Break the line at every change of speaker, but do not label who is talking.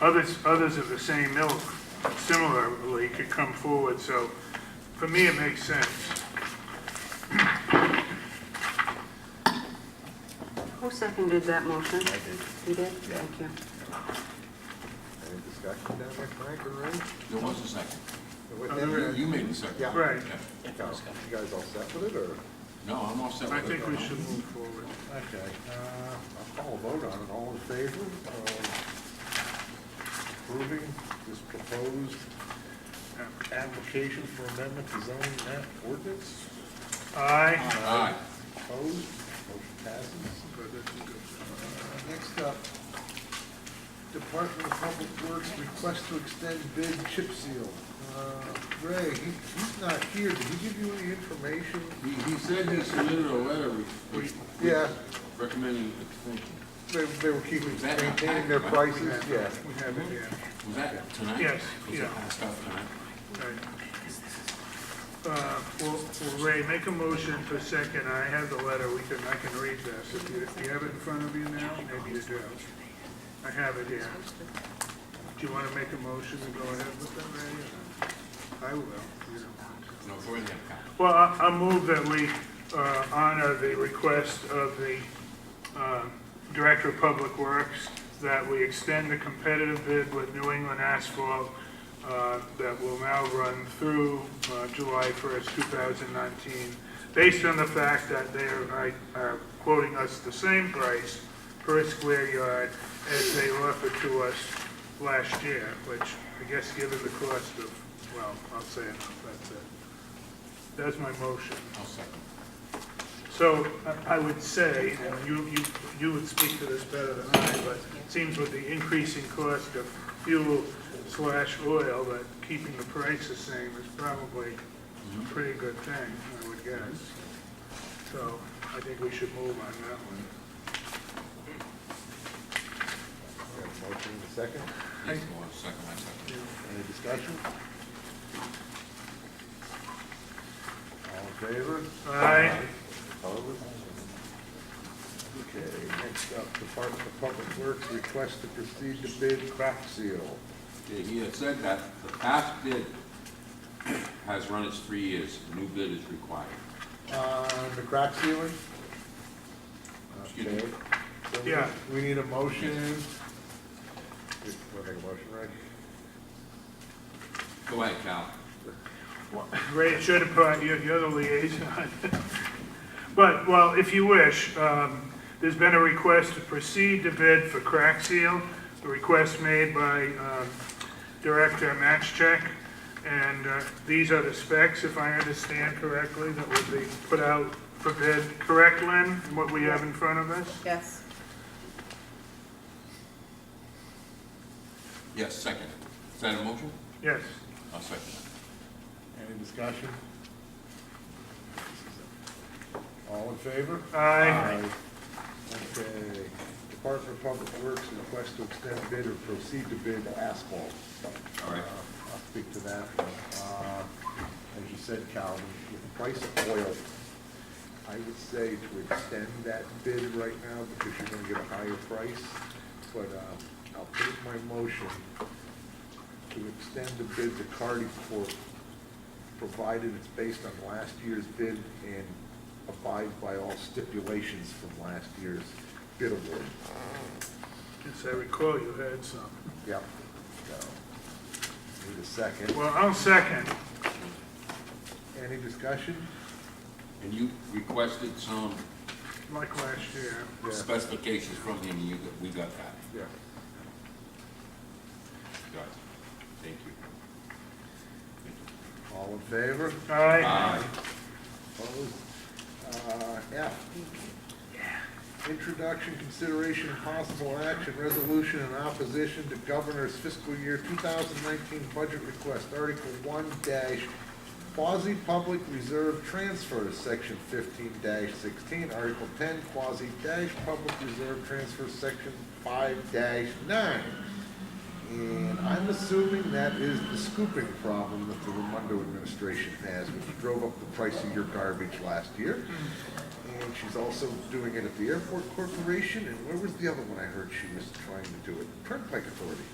others, others of the same ilk similarly could come forward, so for me, it makes sense.
Who seconded that motion?
I did.
You did?
Yeah.
Thank you.
Any discussion down there, Frank or Ray?
There was a second.
What-
You- You made the second.
Yeah.
Right.
Yeah.
No, You guys all set with it, or?
No, I'm all set
I
with it.
think we should move forward.
Okay, uh, I'll call a vote on it, all in favor of approving this proposed application for amendment to zoning map ordinance?
Aye.
Aye.
Opposed, motion passes. Next up, Department of Public Works request to extend bid chip seal. Uh, Ray, he- he's not here, did he give you any information?
He, he said he submitted a letter re- re-
Yeah,
recommending extension.
they, they were keeping,
Is that in the
maintaining their
packet?
prices, yeah.
We have it, yeah,
Was that tonight?
Yes,
Was
yeah.
it passed out tonight?
right. Uh, Well, well, Ray, make a motion for second, I have the letter, we can, I can read this. If you, if you have it in front of you now, maybe you do. I have it here. Do you want to make a motion to go ahead with that, Ray? I will, you don't want to.
No, go ahead, Kyle.
Well, I I move that we uh, honor the request of the um, Director of Public Works that we extend the competitive bid with New England Asphalt uh, that will now run through uh, July 1st, 2019, based on the fact that they are I- are quoting us the same price per square yard as they offered to us last year, which I guess given the cost of, well, I'll say it, that's it. That's my motion.
I'll second.
So I- I would say, and you, you, you would speak to this better than I, but it seems with the increasing cost of fuel slash oil, that keeping the price the same is probably a pretty good thing, I would guess. So I think we should move on that one.
We have a Motion in a second,
He's more second, I second.
any discussion? All in favor?
Aye.
Opposed? Okay, next up, Department of Public Works request to proceed to bid crack seal.
Yeah, He had said that the past bid has run its three years, new bid is required.
On Uh, the crack ceiling?
Excuse me.
Okay. So we-
Yeah.
We need a motion. Just wanna make a motion, right?
Go ahead, Cal.
Ray, it should have brought you, you're the liaison. But, well, if you wish, um, there's been a request to proceed to bid for crack seal, a request made by um, Director Matchcheck, and uh, these are the specs, if I understand correctly, that would be put out for bid, correct, Lynn, what we have in front of us?
Yes.
Yes, second. Is that a motion?
Yes.
I'll second.
Any discussion? All in favor?
Aye.
Okay, Department of Public Works request to extend bid or proceed to bid asphalt.
All right.
Uh, I'll speak to that. one. Uh, As you said, Calvin, with the price of oil, I would say to extend that bid right now because you're gonna get a higher price. But uh, I'll put in my motion to extend the bid to Cardi Corp., provided it's based on last year's bid and abides by all stipulations from last year's bid award.
Yes, I recall you had some.
Yep. So, Need a second.
Well, I'll second.
Any discussion?
And you requested some
Like last year.
Yeah.
specifications from him, and you, got- we got that.
Yeah.
Got it. Thank you.
All in favor?
Aye.
Aye.
Opposed? Uh, F. Introduction, consideration, and possible action, resolution in opposition to governor's fiscal year 2019 budget request, Article 1 dash quasi-public reserve transfers, Section 15 dash 16, Article 10 quasi dash public reserve transfer, Section 5 dash 9. And I'm assuming that is the scooping problem that the Raimondo administration has, which drove up the price of your garbage last year. And she's also doing it at the Airport Corporation, and where was the other one I heard she was trying to do it? Turnpike Authority.